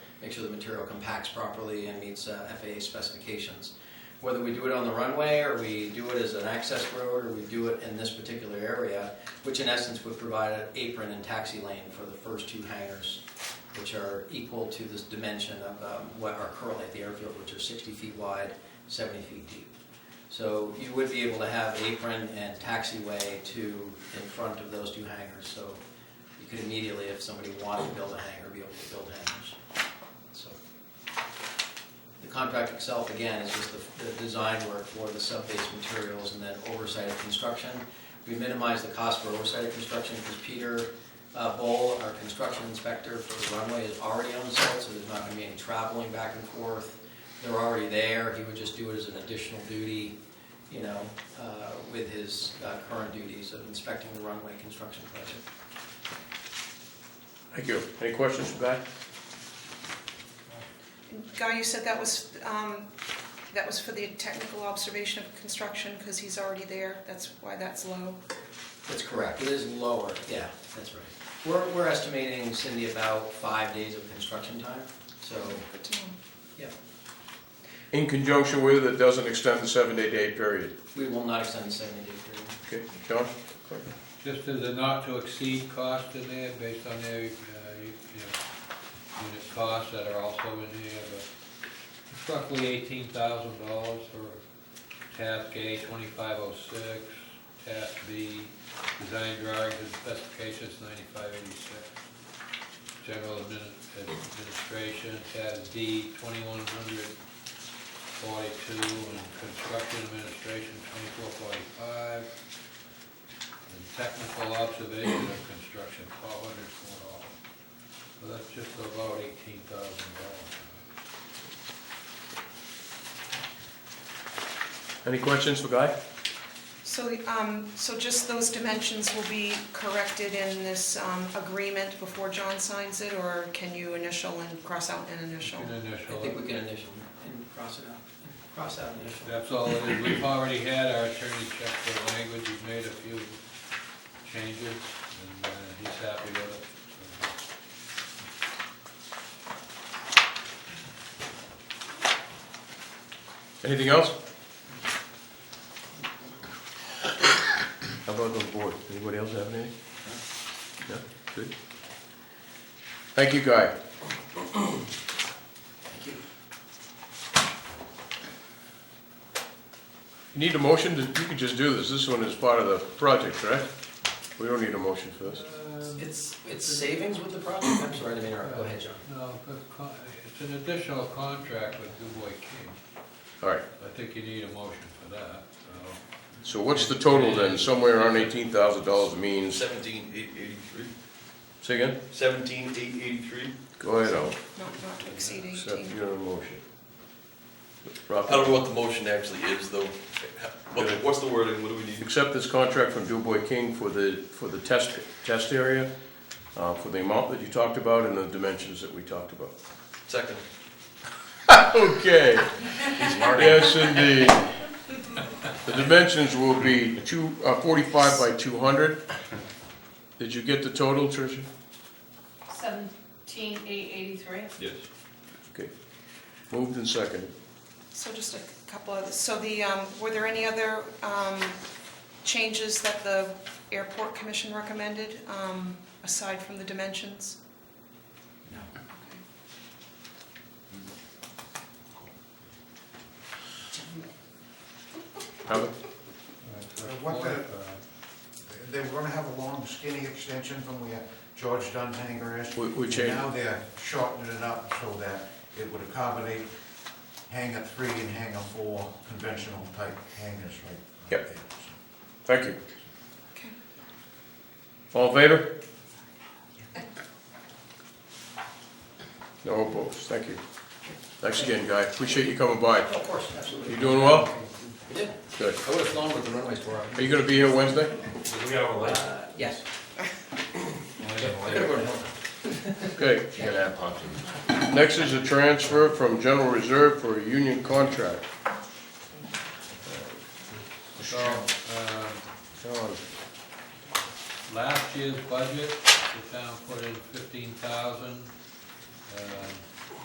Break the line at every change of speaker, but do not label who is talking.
make sure the material compacts properly and meets uh, FAA specifications. Whether we do it on the runway, or we do it as an access road, or we do it in this particular area, which in essence would provide an apron and taxi lane for the first two hangars, which are equal to this dimension of um, what are currently at the airfield, which are 60 feet wide, 70 feet deep. So you would be able to have apron and taxiway to, in front of those two hangars, so you could immediately, if somebody wanted to build a hangar, be able to build hangars. So The contract itself, again, is just the, the design work for the sub-base materials and then oversight of construction. We minimize the cost for oversight of construction because Peter uh, Bowl, our construction inspector for the runway, is already on site, so there's not gonna be any traveling back and forth. They're already there, he would just do it as an additional duty, you know, uh, with his uh, current duties of inspecting the runway construction project.
Thank you. Any questions for that?
Guy, you said that was, um, that was for the technical observation of construction, because he's already there, that's why that's low.
That's correct, it is lower, yeah, that's right. We're, we're estimating, Cindy, about five days of construction time, so,
Good to know.
yeah,
In conjunction with, it doesn't extend the seven-day day period.
we will not extend the seventy day period.
Okay, John?
Just as a not to exceed cost in there, based on their, uh, you know, unit costs that are also in here, but it's roughly eighteen thousand dollars for task A twenty-five oh six, task B, design drawings and specifications ninety-five eighty-six, general admin- administration, task D twenty-one hundred forty-two, and construction administration twenty-four forty-five, and technical observation of construction, four hundred four dollars. So that's just about eighteen thousand dollars.
Any questions for Guy?
So, the, um, so just those dimensions will be corrected in this, um, agreement before John signs it, or can you initial and cross out an initial?
An
I think we
initial,
can initial and cross it out, cross out initial.
that's all it is. We've already had our attorney check the language, we've made a few changes, and uh, he's happy with it. So,
Anything else? How about the board? Anybody else have anything? No? Good. Thank you, Guy.
Thank you.
You need a motion? to- You could just do this. This one is part of the project, correct? We don't need a motion for this.
um,
It's, it's savings with the project, I'm sorry, I didn't mean to interrupt. go ahead, John.
No, but con- it's an additional contract with DuBois King.
All right.
I think you need a motion for that, so.
So what's the total then? Somewhere around eighteen thousand dollars means,
Seventeen eight eighty-three.
say again?
Seventeen eight eighty-three.
Go ahead, Al.
Not, not to exceed eighteen.
Accept your motion.
I don't know what the motion actually is, though. What- What's the wording, what do we need?
Accept this contract from Dubois King for the, for the test, test area, uh, for the amount that you talked about and the dimensions that we talked about.
Second.
Okay. Yes, indeed. The dimensions will be two, uh, forty-five by two hundred. Did you get the total, Tricia?
Seventeen eight eighty-three.
Yes.
Okay. Moved and seconded.
So just a couple of, so the, um, were there any other um, changes that the airport commission recommended, um, aside from the dimensions?
No.
Okay.
Have it?
that's
Uh, what the-
25.
They were gonna have a long skinny extension from where George Dunn hangar is.
We- we
And
changed-
Now they're shortening it up so that it would accommodate hangar three and hangar four conventional type hangars right- right
Yep.
there, so.
Thank you.
Okay.
All in favor? No opposed, thank you. Thanks again, Guy, appreciate you coming by.
Oh, Of course, absolutely.
You doing well?
I did,
Good.
I would have flown with the runway store.
Are you gonna be here Wednesday?
Uh, Yes. I could have gone to Hilton.
Okay. Next is a transfer from general reserve for a union contract.
So, um,
John,
last year's budget, the town put in fifteen thousand.